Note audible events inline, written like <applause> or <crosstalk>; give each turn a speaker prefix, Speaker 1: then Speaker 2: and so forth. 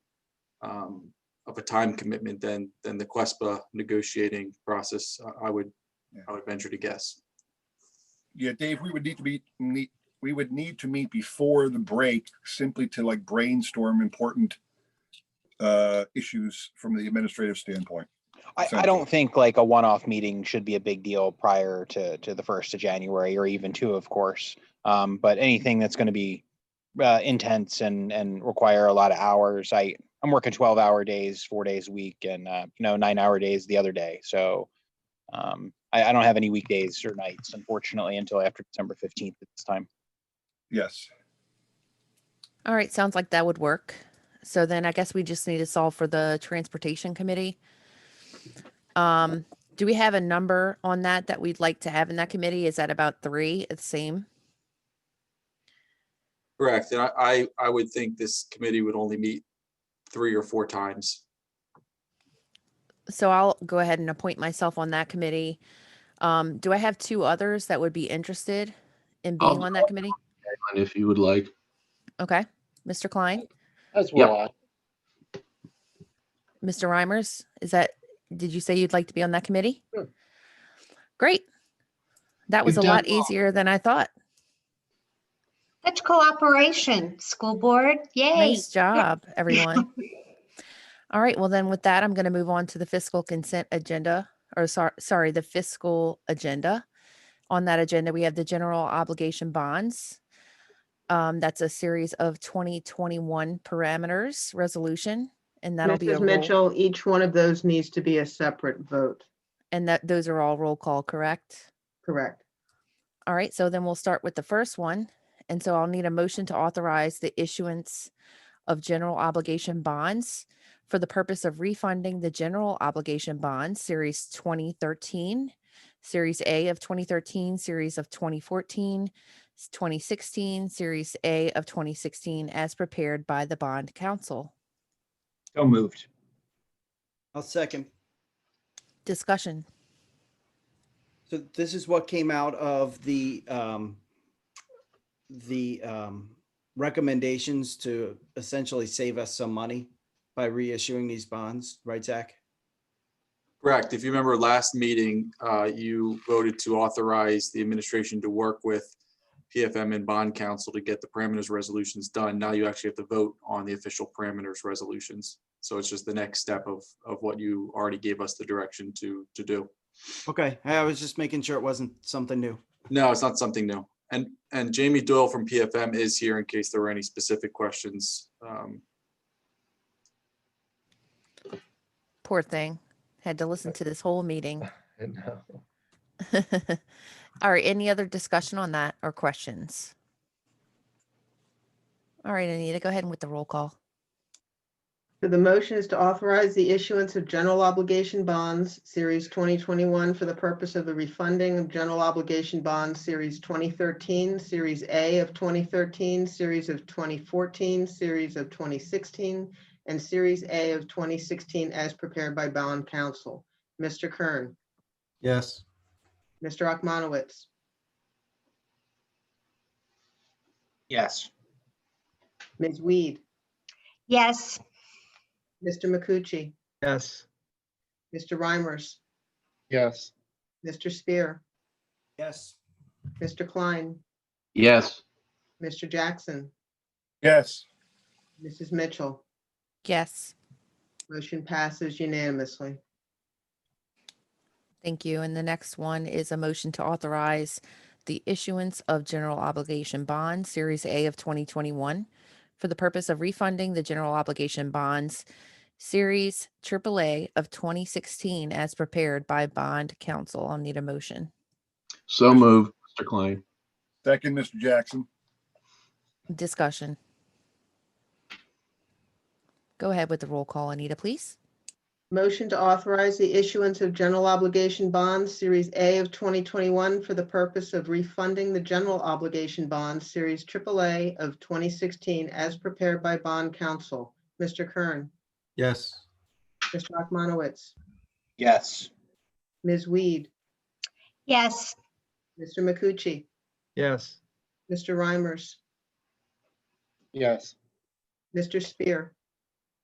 Speaker 1: um, of a time commitment than, than the Quespa negotiating process, I- I would, I would venture to guess.
Speaker 2: Yeah, Dave, we would need to be, meet, we would need to meet before the break simply to like brainstorm important uh, issues from the administrative standpoint.
Speaker 3: I, I
Speaker 2: Sounds
Speaker 3: don't think like a one-off meeting should be a big deal prior to, to the first of January or even two, of course. Um, but anything that's going to be uh, intense and, and require a lot of hours, I, I'm working twelve hour days, four days a week and, uh, you know, nine hour days the other day. So um, I, I don't have any weekdays or nights unfortunately until after December fifteenth at this time.
Speaker 2: Yes,
Speaker 4: All right, sounds like that would work. So then I guess we just need to solve for the transportation committee. Um, do we have a number on that that we'd like to have in that committee? Is that about three? It's same?
Speaker 1: Correct. And I, I, I would think this committee would only meet three or four times.
Speaker 4: So I'll go ahead and appoint myself on that committee. Um, do I have two others that would be interested in
Speaker 5: I'll
Speaker 4: being
Speaker 5: do
Speaker 4: on
Speaker 5: it.
Speaker 4: that committee?
Speaker 5: on if you would like.
Speaker 4: Okay, Mr. Klein,
Speaker 6: As
Speaker 5: Yep.
Speaker 6: well, I-
Speaker 4: Mr. Reimers, is that, did you say you'd like to be on that committee?
Speaker 6: Sure.
Speaker 4: Great. That was a
Speaker 5: We've
Speaker 4: lot
Speaker 5: done well.
Speaker 4: easier than I thought.
Speaker 7: That's cooperation, school board. Yay.
Speaker 4: Nice job, everyone. All right, well then with that, I'm going to move on to the fiscal consent agenda, or sorry, sorry, the fiscal agenda. On that agenda, we have the general obligation bonds. Um, that's a series of 2021 parameters resolution, and that'll be a
Speaker 8: Mrs.
Speaker 4: roll.
Speaker 8: Mitchell, each one of those needs to be a separate vote,
Speaker 4: And that, those are all roll call, correct?
Speaker 8: correct?
Speaker 4: All right, so then we'll start with the first one. And so I'll need a motion to authorize the issuance of general obligation bonds for the purpose of refunding the general obligation bonds, Series 2013, Series A of 2013, Series of 2014, s- 2016, Series A of 2016, as prepared by the bond council.
Speaker 3: So moved.
Speaker 6: I'll second.
Speaker 4: Discussion.
Speaker 6: So this is what came out of the, um, the, um, recommendations to essentially save us some money by reissuing these bonds, right, Zach?
Speaker 1: Correct. If you remember last meeting, uh, you voted to authorize the administration to work with PFM and bond council to get the parameters resolutions done. Now you actually have to vote on the official parameters resolutions. So it's just the next step of, of what you already gave us the direction to, to do.
Speaker 6: Okay, I was just making sure it wasn't something new.
Speaker 1: No, it's not something new. And, and Jamie Doyle from PFM is here in case there were any specific questions. Um,
Speaker 4: Poor thing. Had to listen to this whole meeting.
Speaker 9: <laughs> I know.
Speaker 4: <laughs> All right, any other discussion on that or questions? All right, Anita, go ahead and with the roll call.
Speaker 8: So the motion is to authorize the issuance of general obligation bonds, Series 2021, for the purpose of the refunding of general obligation bonds, Series 2013, Series A of 2013, Series of 2014, Series of 2016, and Series A of 2016 as prepared by bond counsel. Mr. Kern,
Speaker 6: Yes.
Speaker 8: Mr. Akmanowitz,
Speaker 3: Yes.
Speaker 8: Ms. Weed,
Speaker 7: Yes,
Speaker 8: Mr. McCucci,
Speaker 9: Yes.
Speaker 8: Mr. Reimers,
Speaker 9: Yes.
Speaker 8: Mr. Spear,
Speaker 6: Yes.
Speaker 8: Mr. Klein,
Speaker 5: Yes,
Speaker 8: Mr. Jackson,
Speaker 2: yes,
Speaker 8: Mrs. Mitchell.
Speaker 4: Yes,
Speaker 8: Motion passes unanimously.
Speaker 4: thank you. And the next one is a motion to authorize the issuance of general obligation bonds, Series A of 2021, for the purpose of refunding the general obligation bonds, Series AAA of 2016, as prepared by bond counsel. I'll need a motion.
Speaker 5: so moved, Mr. Klein.
Speaker 2: second, Mr. Jackson.
Speaker 4: Discussion. Go ahead with the roll call, Anita, please.
Speaker 8: Motion to authorize the issuance of general obligation bonds, Series A of 2021, for the purpose of refunding the general obligation bonds, Series AAA of 2016, as prepared by bond counsel. Mr. Kern,
Speaker 9: Yes.
Speaker 8: Mr. Akmanowitz,
Speaker 3: Yes.
Speaker 8: Ms. Weed,
Speaker 7: yes,
Speaker 8: Mr. McCucci,
Speaker 9: Yes.
Speaker 8: Mr. Reimers,
Speaker 9: Yes.
Speaker 8: Mr. Spear,